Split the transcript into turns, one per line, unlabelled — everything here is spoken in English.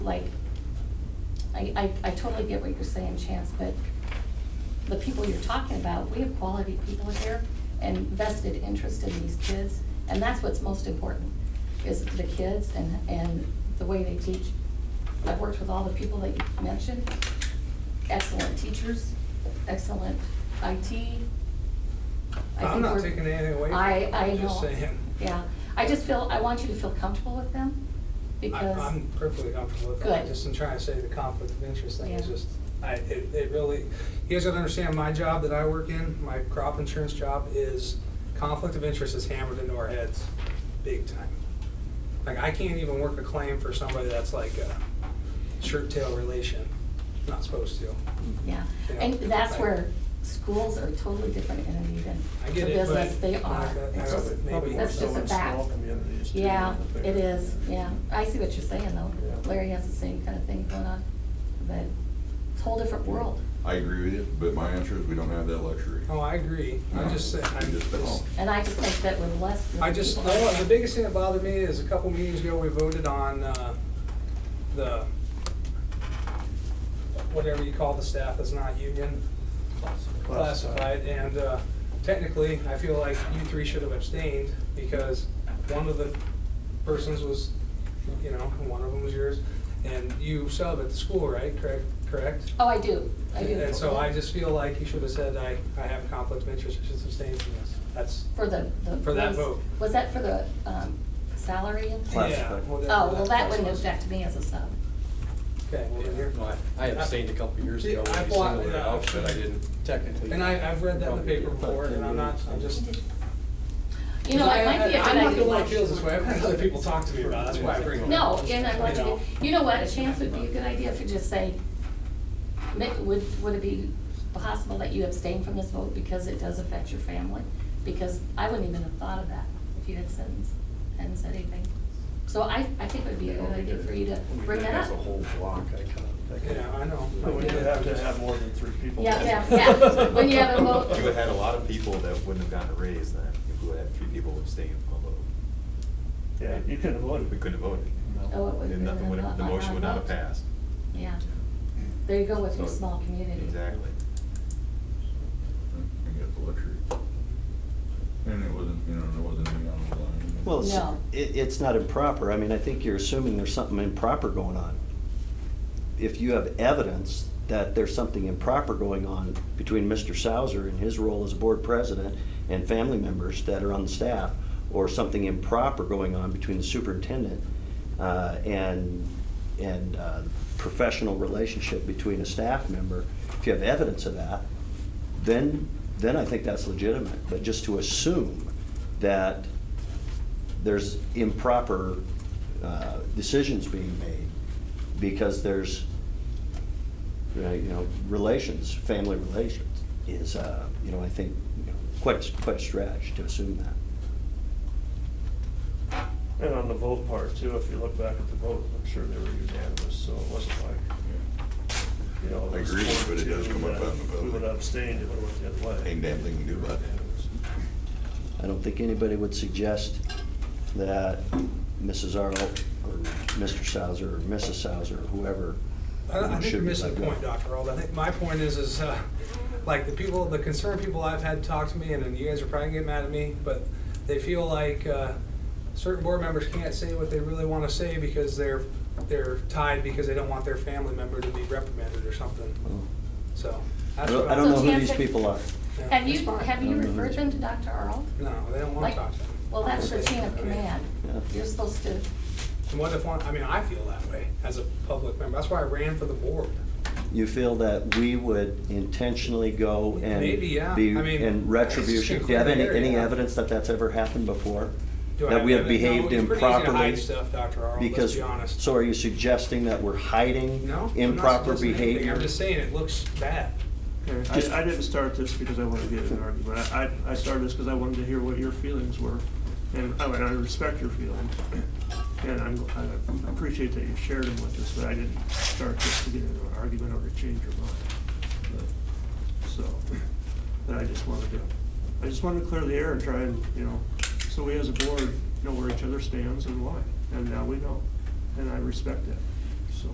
like, I, I, I totally get what you're saying, Chance, but the people you're talking about, we have quality people here and vested interest in these kids, and that's what's most important, is the kids and, and the way they teach. I've worked with all the people that you mentioned, excellent teachers, excellent IT. I
I'm
think
not
we're-
taking anything away from
I,
it.
I know.
I'm just saying.
Yeah, I just feel, I want you to feel comfortable with them, because.
I- I'm perfectly comfortable with that,
Good.
just in trying to say the conflict of interest thing is
Yeah.
just, I, it, it really, you guys gotta understand, my job that I work in, my crop insurance job is, conflict of interest is hammered into our heads, big time. Like, I can't even work a claim for somebody that's like a shirt tail relation, not supposed to.
Yeah,
You know,
and that's
like-
where schools are a totally different entity than
I
the
get it, but
business they
like
are.
that-
It's
I
just-
would
Probably
maybe-
more
That's
so
just a
in
fact.
small communities too.
Yeah,
than the bigger
it is,
ones.
yeah. I see what you're saying though.
Yeah.
Larry has the same kind of thing going on, but it's a whole different world.
I agree with you, but my answer is we don't have that luxury.
Oh, I agree, I just said, I
You
just,
just don't.
And I just think that we're less.
I just, you know what, the biggest thing that bothered me is a couple meetings ago, we voted on, uh, the, whatever you call the staff that's not union classified, and, uh, technically, I feel like you three should have abstained, because one of the persons was, you know, and one of them was yours, and you sub at the school, right, correct, correct?
Oh, I do, I do.
And so I just feel like you should have said, I, I have a conflict of interest, I should abstain from this, that's,
For the, the.
For that
was-
vote.
Was that for the, um, salary? and-
yeah,
Classified.
Oh,
whatever
well, that
was.
wouldn't affect me as a sub.
Okay, well, then you're.
No, I- I abstained a couple years
Yeah,
ago when
I
you
bought-
singled it
yeah.
out, but I didn't technically.
And I, I've read that in the
probably
paper
get
before,
about
and I'm not,
10
I'm just.
You know, it might be a good idea.
I'm not the one that feels this way, I've had other people talk to me about it, that's why I bring it up.
No, and I want you
know.
to, you know what, a chance would be a good idea if you just say, ma- would, would it be possible that you abstain from this vote because it does affect your family? Because I wouldn't even have thought of that if you had said, hadn't said anything. So I, I think it would be a good idea for you to
When we
bring
did
that
it As a
up.
whole block, I kind of. think-
Yeah, I know.
But when you have to have more than three people.
Yeah, yeah, yeah. When you have a vote.
You would have had a lot of people that wouldn't have gotten a raise then, if we would have three people abstaining from a vote.
Yeah, you couldn't have voted.
We couldn't have voted.
Oh, it would.
And nothing would, have- the motion would not have passed.
Uh-huh. Yeah. There you go with your
So-
small community.
Exactly.
We got the luxury. And it wasn't, you know, there wasn't any on the line.
Well, it's,
No.
it, it's not improper. I mean, I think you're assuming there's something improper going on. If you have evidence that there's something improper going on between Mr. Sauer and his role as board president and family members that are on the staff, or something improper going on between the superintendent, uh, and, and, uh, professional relationship between a staff member, if you have evidence of that, then, then I think that's legitimate. But just to assume that there's improper uh, decisions being made because there's, uh, you know, relations, family relations is, uh, you know, I think, you know, quite, a- quite a stretch to assume that.
And on the vote part too, if you look back at the vote, I'm sure they were unanimous, so it wasn't like, you know. it
I
was
agree, but it does
42
come up
that
out in the
We
vote.
would have abstained, it would have went the other way.
Ain't damn thing you can do about it.
Unanimous.
I don't think anybody would suggest that Mrs. Arlo or Mr. Sauer or Mrs. Sauer or whoever
I I think
should
you're
be
missing
let
the
go.
point, Dr. Arnold. I think my point is, is, uh, like, the people, the concerned people I've had talk to me, and then you guys are probably gonna get mad at me, but they feel like, uh, certain board members can't say what they really wanna say because they're, they're tied because they don't want their family member to be reprimanded or something, so.
I
that's
don't
what
I don't know who
Chance,
these
I-
people are.
Yeah.
Have you, have you
Mhm.
referred them to Dr. Earl?
No, they don't wanna
Like,
talk to them.
well, that's the chain of
I mean,
command.
Yeah.
You're supposed to,
And what if one, I mean, I feel that way as a public member. That's why I ran for the board.
You feel that we would intentionally go and
Maybe, yeah.
be
I mean,
in retribution?
it's
Do you have any,
clear,
any
yeah.
evidence that that's ever happened before?
Do I
That we have
evidence? No,
behaved
It's pretty
improperly?
easy to hide stuff, Dr. Arnold, let's
Because,
be honest.
so are you suggesting that we're hiding
No, I'm not
improper
suggesting anything.
behavior?
I'm just saying, it looks bad.
Just-
I, I didn't start this because I wanted to get in an argument. I, I I started this because I wanted to hear what your feelings were. And I, mean, I respect your feelings. And I'm, I appreciate that you shared them with us, but I didn't start this to get in an argument or to change your mind. But- So, but I just wanted to, I just wanted to clear the air and try and, you know, so we as a board know where each other stands and why. And now we know. And I respect that.